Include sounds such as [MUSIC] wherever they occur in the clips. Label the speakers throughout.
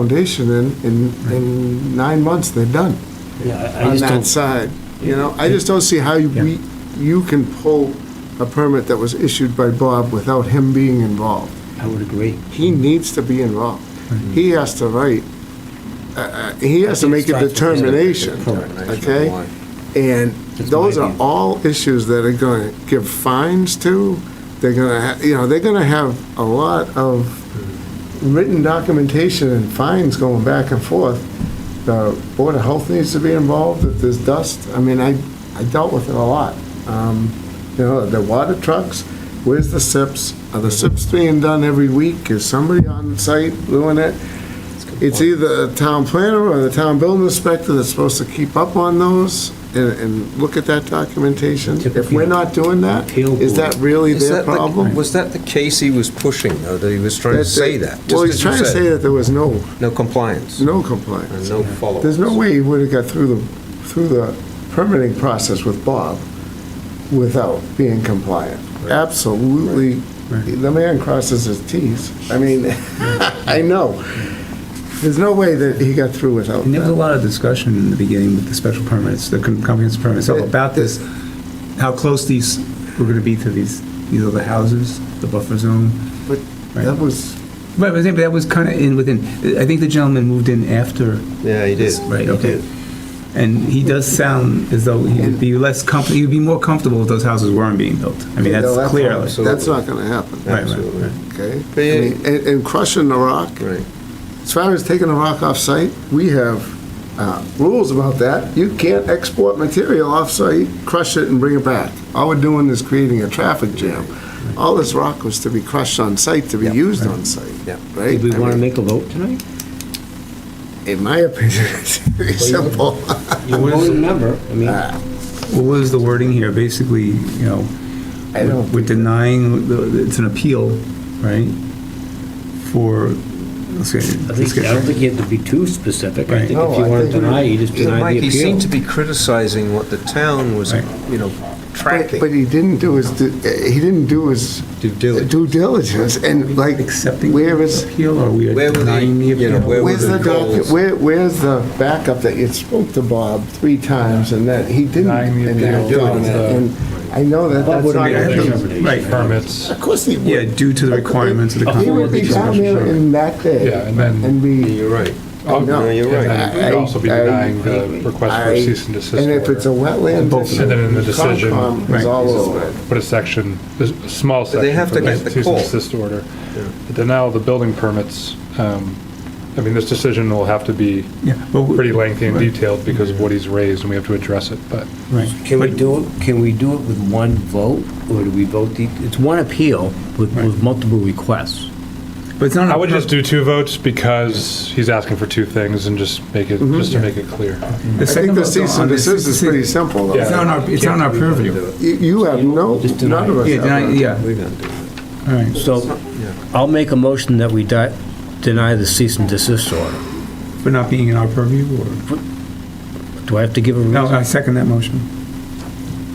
Speaker 1: foundation in, in, in nine months, they're done
Speaker 2: Yeah, I- I
Speaker 1: on
Speaker 2: just
Speaker 1: that
Speaker 2: don't,
Speaker 1: side. You know, I just don't see how you- we, you can pull a permit that was issued by Bob without him being involved.
Speaker 2: I would agree.
Speaker 1: He needs to be involved. He has to write, uh, uh, he has to make a determination, okay? And
Speaker 2: That's
Speaker 1: those
Speaker 2: my
Speaker 1: are
Speaker 2: view.
Speaker 1: all issues that are gonna give fines to, they're gonna, ha- you know, they're gonna have a lot of written documentation and fines going back and forth. The Board of Health needs to be involved, if there's dust, I mean, I, I dealt with it a lot. Um, You know, the water trucks, where's the SIPs? Are the SIPs being done every week? Is somebody on site doing it? It's either the town planner or the town building inspector that's supposed to keep up on those and, and look at that documentation. If we're not doing that, is that really
Speaker 3: Is
Speaker 1: their
Speaker 3: that the-
Speaker 1: problem?
Speaker 3: Was that the case he was pushing, though, that he was trying to say that?
Speaker 1: Well,
Speaker 3: just
Speaker 1: he's
Speaker 3: as you
Speaker 1: trying to
Speaker 3: said,
Speaker 1: say that there was no,
Speaker 3: No compliance,
Speaker 1: no
Speaker 3: and
Speaker 1: compliance.
Speaker 3: no follow-up.
Speaker 1: There's no way he would have got through the, through the permitting process with Bob without being compliant. Absolutely, the man crosses his Ts. I mean, [LAUGHS] I know. There's no way that he got through without
Speaker 4: And there was a
Speaker 1: that.
Speaker 4: lot of discussion in the beginning with the special permits, the com- comprehensive permits, all about this, how close these were gonna be to these, these other houses, the buffer zone.
Speaker 1: But that was,
Speaker 4: Right, but I think that was kinda in within, I think the gentleman moved in after.
Speaker 3: Yeah, he did.
Speaker 4: this, Right, okay. And he does sound as though he would be less comfortable, he'd be more comfortable if those houses weren't being built. I mean,
Speaker 1: No,
Speaker 4: that's
Speaker 1: that's
Speaker 4: clear.
Speaker 1: wrong.
Speaker 4: like-
Speaker 3: So-
Speaker 1: that's not gonna happen,
Speaker 4: Right, right,
Speaker 3: Absolutely.
Speaker 4: right.
Speaker 1: okay?
Speaker 3: But yeah.
Speaker 1: I mean, And, and crushing the rock,
Speaker 3: Right.
Speaker 1: as far as taking a rock off-site, we have uh, rules about that. You can't export material off-site, crush it, and bring it back. All we're doing is creating a traffic jam. All this rock was to be crushed on-site, to be
Speaker 3: Yeah.
Speaker 1: used on-site,
Speaker 3: Yeah.
Speaker 1: right?
Speaker 2: Did we
Speaker 1: I
Speaker 2: want to
Speaker 1: mean,
Speaker 2: make a vote tonight?
Speaker 1: In my opinion, [LAUGHS] it's very simple.
Speaker 2: You're a voting member, I mean,
Speaker 4: What was the wording here? Basically, you know,
Speaker 1: I don't-
Speaker 4: we're denying, the- it's an appeal, right? For, let's get,
Speaker 2: I think, I don't think you have to be too specific. I
Speaker 4: Right.
Speaker 2: think if you
Speaker 1: No, I
Speaker 2: want to
Speaker 1: think-
Speaker 2: deny, you just
Speaker 3: Yeah,
Speaker 2: deny
Speaker 3: Mike,
Speaker 2: the
Speaker 3: he seemed to
Speaker 2: appeal.
Speaker 3: be criticizing what the town was,
Speaker 4: Right.
Speaker 3: you know,
Speaker 1: But but
Speaker 3: tracking.
Speaker 1: he didn't do his, du- uh, he didn't do his
Speaker 3: Due diligence.
Speaker 1: due diligence, and like,
Speaker 4: accepting
Speaker 1: where
Speaker 4: the
Speaker 1: is,
Speaker 4: appeal, or we
Speaker 3: Where
Speaker 4: are
Speaker 3: were the-
Speaker 4: denying the
Speaker 3: you know,
Speaker 4: appeal?
Speaker 3: where-
Speaker 1: Where's the
Speaker 3: were the
Speaker 1: docu,
Speaker 3: goals?
Speaker 1: where, where's the backup that you spoke to Bob three times and that he didn't
Speaker 4: Denying the appeal.
Speaker 1: enact on it? And I know that
Speaker 2: Bob
Speaker 1: that's
Speaker 2: would've
Speaker 1: not.
Speaker 2: been able to
Speaker 1: gonna
Speaker 2: cover
Speaker 1: be-
Speaker 2: it.
Speaker 4: Right,
Speaker 5: permits.
Speaker 1: Of course he would.
Speaker 4: yeah, due to the requirements of the
Speaker 1: He would be
Speaker 4: comprehensive
Speaker 1: down there
Speaker 4: permit.
Speaker 1: in that
Speaker 5: Yeah,
Speaker 1: day
Speaker 5: and then.
Speaker 1: and be.
Speaker 3: You're right.
Speaker 5: Oh,
Speaker 1: no,
Speaker 3: you're right.
Speaker 5: And then we'd also be
Speaker 1: I- I-
Speaker 5: denying the request for
Speaker 1: I-
Speaker 5: a cease and desist
Speaker 1: And if it's a
Speaker 5: order.
Speaker 1: wetland
Speaker 5: them.
Speaker 1: issue.
Speaker 5: And then in the decision-
Speaker 1: Concom is
Speaker 4: Right.
Speaker 1: all over it.
Speaker 5: Put a section, there's a small
Speaker 3: But
Speaker 5: section.
Speaker 3: they have
Speaker 5: for
Speaker 3: to get the
Speaker 5: Cease
Speaker 3: call.
Speaker 5: and desist order. But then now the building permits, um, I mean, this decision will have to be
Speaker 4: Yeah, but we-
Speaker 5: pretty lengthy and
Speaker 4: Right.
Speaker 5: detailed because of what he's raised and we have to address it, but.
Speaker 4: Right.
Speaker 2: Can we
Speaker 4: But-
Speaker 2: do it, can we do it with one vote, or do we vote the, it's one appeal with, with multiple requests?
Speaker 4: But it's not.
Speaker 5: I
Speaker 4: a
Speaker 5: would
Speaker 4: per-
Speaker 5: just do two votes because he's asking for two things and just make it,
Speaker 4: Mm-hmm.
Speaker 5: just to make it clear.
Speaker 4: the
Speaker 1: I think
Speaker 4: second
Speaker 1: the
Speaker 4: vote
Speaker 1: cease
Speaker 4: on
Speaker 1: and
Speaker 4: this
Speaker 1: desist is pretty simple though.
Speaker 4: It's not on our, it's not on our purview.
Speaker 1: You, you have no,
Speaker 2: Just deny.
Speaker 1: none of us
Speaker 4: Yeah,
Speaker 1: have.
Speaker 4: deny-
Speaker 1: that.
Speaker 4: yeah,
Speaker 3: We're gonna do it.
Speaker 4: all right.
Speaker 2: So, I'll make a motion that we di- deny the cease and desist order.
Speaker 4: For not being in our purview, or?
Speaker 2: Do I have to give a
Speaker 4: No,
Speaker 2: reason?
Speaker 4: I second that motion.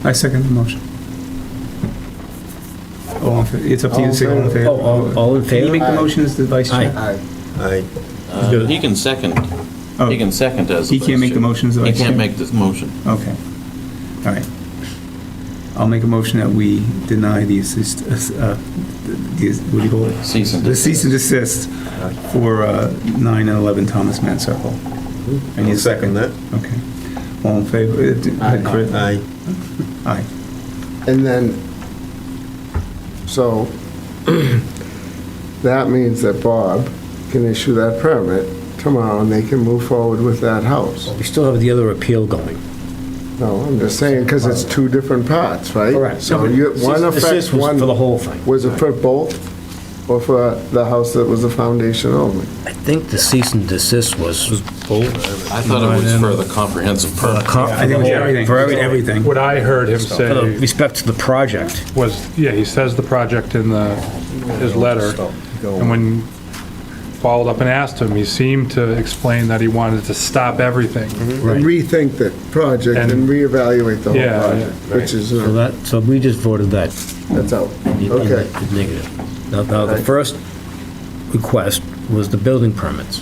Speaker 4: I second the motion. All in fa- It's up to you to say all in favor.
Speaker 2: Oh, all- all in
Speaker 4: Can you make
Speaker 2: favor?
Speaker 4: the motion as the vice chair?
Speaker 1: I-
Speaker 3: I,
Speaker 6: Uh, He can second,
Speaker 4: Oh,
Speaker 6: he can second as.
Speaker 4: He can't make the motion as the
Speaker 6: He
Speaker 4: vice
Speaker 6: can't
Speaker 4: chair?
Speaker 6: make this motion.
Speaker 4: Okay. All right. I'll make a motion that we deny the assist, uh, the, what do you call it?
Speaker 6: Cease and
Speaker 4: The cease and desist for uh, 9 and 11 Thomas Mann Circle. I need a
Speaker 3: I'll second that.
Speaker 4: Okay. All in favor? uh, d-
Speaker 1: Aye.
Speaker 4: Chris?
Speaker 3: I,
Speaker 4: Aye.
Speaker 1: And then, so, [CLEARS THROAT] that means that Bob can issue that permit tomorrow, and they can move forward with that house.
Speaker 2: We still have the other appeal going.
Speaker 1: No, I'm just saying, because it's two different parts, right? So you, one affects one,
Speaker 2: For the whole thing.
Speaker 1: was it for both, or for the house that was the foundation only?
Speaker 2: I think the cease and desist was
Speaker 6: I thought it was for the comprehensive
Speaker 2: for the
Speaker 6: permit.
Speaker 2: comp,
Speaker 4: I
Speaker 2: for the
Speaker 4: think it's
Speaker 2: whole,
Speaker 4: everything.
Speaker 2: for every-
Speaker 4: It's
Speaker 2: everything,
Speaker 4: Everything.
Speaker 5: What I heard him
Speaker 2: for the
Speaker 5: say
Speaker 2: respect to the project.
Speaker 5: was, yeah, he says the project in the, his letter.
Speaker 3: Stop. Go
Speaker 5: And
Speaker 3: on.
Speaker 5: when followed up and asked him, he seemed to explain that he wanted to stop everything.
Speaker 1: And rethink the project and
Speaker 5: And-
Speaker 1: reevaluate the whole
Speaker 5: Yeah,
Speaker 1: project,
Speaker 5: yeah,
Speaker 1: which is,
Speaker 2: So
Speaker 1: uh,
Speaker 2: that, so we just voted that.
Speaker 1: that's out.
Speaker 2: in- in
Speaker 1: Okay,
Speaker 2: the Negative. Now, now, the
Speaker 1: Right.
Speaker 2: first request was the building permits.